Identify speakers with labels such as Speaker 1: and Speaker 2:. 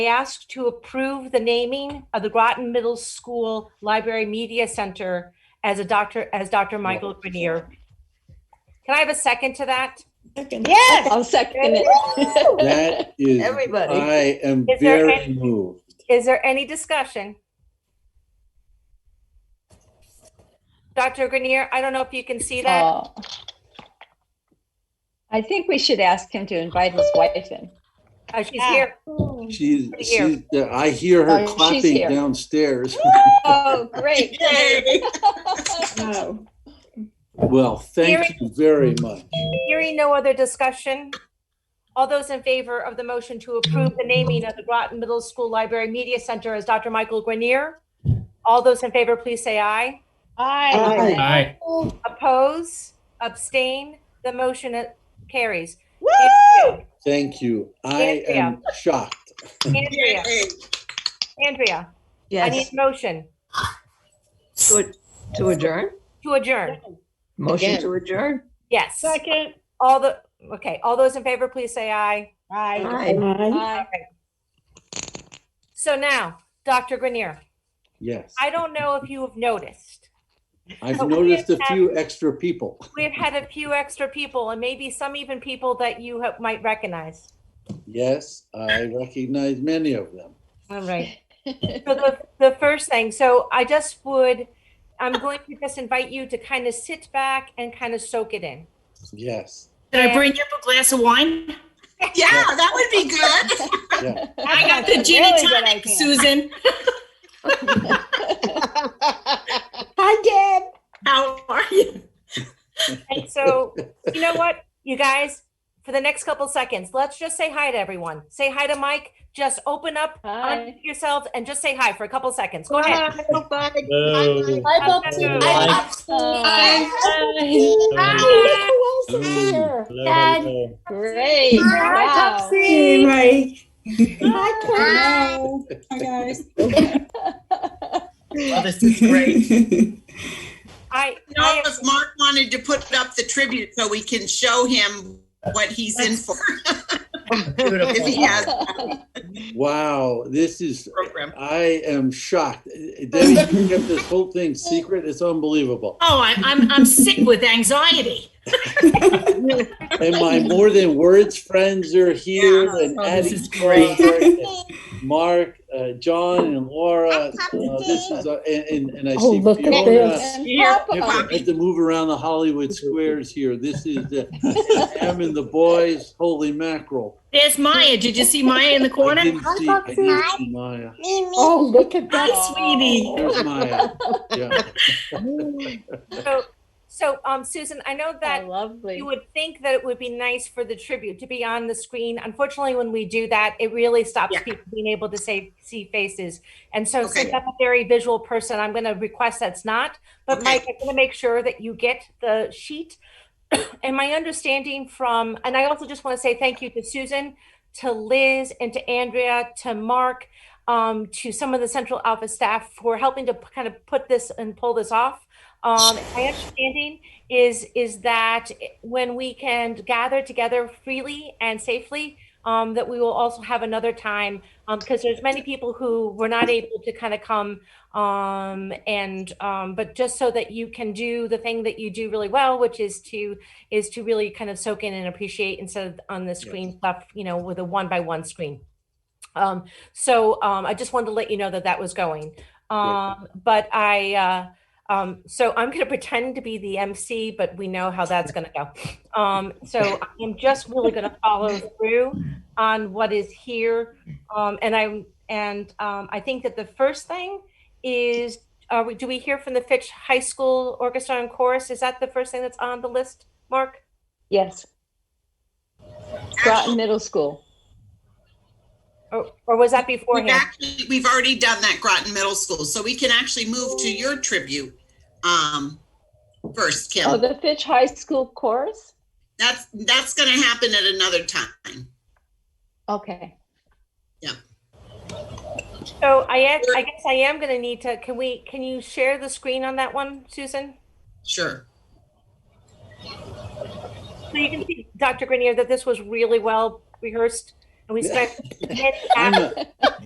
Speaker 1: I ask to approve the naming of the Groton Middle School Library Media Center as a doctor, as Dr. Michael Grenier. Can I have a second to that?
Speaker 2: Second.
Speaker 3: Yes,
Speaker 4: I'll second it.
Speaker 2: That
Speaker 3: is-
Speaker 2: Everybody.
Speaker 3: I am
Speaker 1: Is there
Speaker 3: very
Speaker 1: any-
Speaker 3: moved.
Speaker 1: Is there any discussion? Dr. Grenier, I don't know if you can see that.
Speaker 4: Oh. I think we should ask him to invite his wife in.
Speaker 1: Uh, She's
Speaker 4: yeah.
Speaker 1: here.
Speaker 3: She's,
Speaker 1: Here.
Speaker 3: she's, uh, I hear
Speaker 4: Oh,
Speaker 3: her
Speaker 4: she's
Speaker 3: clapping
Speaker 4: here.
Speaker 3: downstairs.
Speaker 4: Oh, great.
Speaker 2: Yay. Wow.
Speaker 3: Well, thank you very much.
Speaker 1: Hearing no other discussion, all those in favor of the motion to approve the naming of the Groton Middle School Library Media Center as Dr. Michael Grenier? All those in favor, please say aye.
Speaker 4: Aye.
Speaker 5: Aye.
Speaker 1: Oppose, abstain, the motion uh, carries.
Speaker 2: Woo!
Speaker 3: Thank you. I am shocked.
Speaker 1: Andrea, Andrea, I need
Speaker 2: Yes,
Speaker 1: a motion
Speaker 2: to to adjourn?
Speaker 1: to adjourn.
Speaker 2: Motion to adjourn?
Speaker 1: Yes.
Speaker 4: Second.
Speaker 1: All the, okay, all those in favor, please say aye.
Speaker 2: Aye.
Speaker 4: Aye.
Speaker 1: So now, Dr. Grenier,
Speaker 3: Yes.
Speaker 1: I don't know if you have noticed,
Speaker 3: I've
Speaker 1: but we
Speaker 3: noticed a
Speaker 1: have-
Speaker 3: few extra people.
Speaker 1: we've had a few extra people and maybe some even people that you have- might recognize.
Speaker 3: Yes, I recognize many of them.
Speaker 1: All right. So the, the first thing, so I just would, I'm going to just invite you to kind of sit back and kind of soak it in.
Speaker 3: Yes.
Speaker 6: Can I bring you up a glass of wine?
Speaker 7: Yeah, that would be good.
Speaker 6: I got the gin and tonic, Susan.
Speaker 2: Hi,
Speaker 7: How are you?
Speaker 1: And so, you know what, you guys, for the next couple seconds, let's just say hi to everyone. Say hi to Mike. Just open up
Speaker 4: Hi.
Speaker 1: unmute yourselves and just say hi for a couple seconds. Go ahead.
Speaker 5: Hello. Hello.
Speaker 2: Deb. Who else is
Speaker 5: Hello,
Speaker 2: here?
Speaker 5: hello.
Speaker 4: Great. Wow.
Speaker 2: Hey, Mike.
Speaker 7: Hi.
Speaker 6: Oh, this is great.
Speaker 1: I,
Speaker 7: You know,
Speaker 1: I
Speaker 7: if Mark wanted to put up the tribute so we can show him what he's in for if
Speaker 6: Beautiful.
Speaker 7: he has a
Speaker 3: Wow, this is,
Speaker 7: program.
Speaker 3: I am shocked. Debbie, you kept this whole thing secret. It's unbelievable.
Speaker 6: Oh, I, I'm, I'm sick with anxiety.
Speaker 3: And my more than words friends are here.
Speaker 7: Yeah.
Speaker 3: and
Speaker 6: Oh,
Speaker 3: Addie,
Speaker 6: this is great.
Speaker 3: and Mark, uh, John, and Laura. Uh, this is uh, and, and, and I see
Speaker 8: Oh, look at
Speaker 3: Fiona.
Speaker 4: And
Speaker 3: If
Speaker 4: Papa.
Speaker 3: I had to move around the Hollywood squares here. This is the Sam and the boys. Holy mackerel!
Speaker 6: There's Maya. Did you see Maya in the
Speaker 3: I
Speaker 6: corner?
Speaker 3: didn't see, I didn't see Maya.
Speaker 8: Oh, look at that.
Speaker 6: Hi, sweetie.
Speaker 3: There's Maya. Yeah.
Speaker 1: so, so um, Susan, I know
Speaker 4: Oh,
Speaker 1: that
Speaker 4: Lovely.
Speaker 1: you would think that it would be nice for the tribute to be on the screen. Unfortunately, when we do that, it really stops
Speaker 7: Yeah.
Speaker 1: people being able to say see faces. And so,
Speaker 7: Okay.
Speaker 1: since I'm a very visual person, I'm going to request that's not. But
Speaker 7: Okay.
Speaker 1: Mike, I'm going to make sure that you get the sheet. and my understanding from, and I also just want to say thank you to Susan, to Liz, and to Andrea, to Mark, um, to some of the central office staff for helping to p- kind of put this and pull this off. Um, my understanding is is that when we can gather together freely and safely, um, that we will also have another time because there's many people who were not able to kind of come um, and um, but just so that you can do the thing that you do really well, which is to is to really kind of soak in and appreciate instead of on the screen stuff, you know, with a one by one screen. Um, so um, I just wanted to let you know that that was going. Um, but I. Uh, um, so I'm going to pretend to be the MC, but we know how that's going to go. Um, so I'm just really going to follow through on what is here, um, and I and um, I think that the first thing is, are we, do we hear from the Fitch High School Orchestra and Chorus? Is that the first thing that's on the list, Mark?
Speaker 4: Yes. Groton Middle School.
Speaker 1: Or, or was that
Speaker 7: We've
Speaker 1: beforehand?
Speaker 7: actually, we've already done that Groton Middle School, so we can actually move to your tribute um, first,
Speaker 4: Oh,
Speaker 7: Kim.
Speaker 4: the Fitch High School chorus?
Speaker 7: That's, that's going to happen at another time.
Speaker 4: Okay.
Speaker 1: So I, am- I guess I am going to need to. Can we? Can you share the screen on that one, Susan?
Speaker 7: Sure.
Speaker 1: So you can see, Dr. Grenier, that this was really well rehearsed. and we spent many
Speaker 3: I'm
Speaker 1: hours
Speaker 3: a-